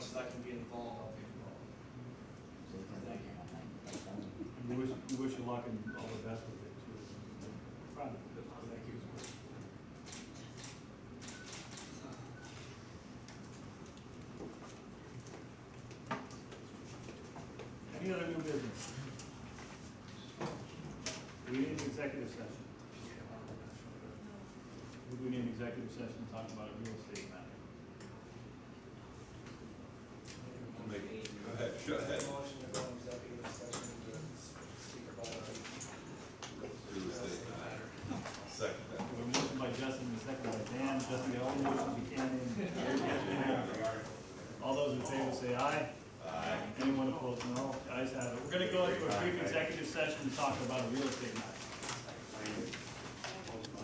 we wish you luck and all the best with it too. Fun, but thank you. Any other new business? We need an executive session. We need an executive session to talk about a real estate matter. I'll make- Go ahead, go ahead. Motion to go into executive session to speak about it. Do the statement. Second that. We're motion by Justin, and second by Dan, Justin, the only motion Buchanan. All those in favor say aye. Aye. Anyone opposed, no. The Ayes have it. We're gonna go into a brief executive session to talk about a real estate matter.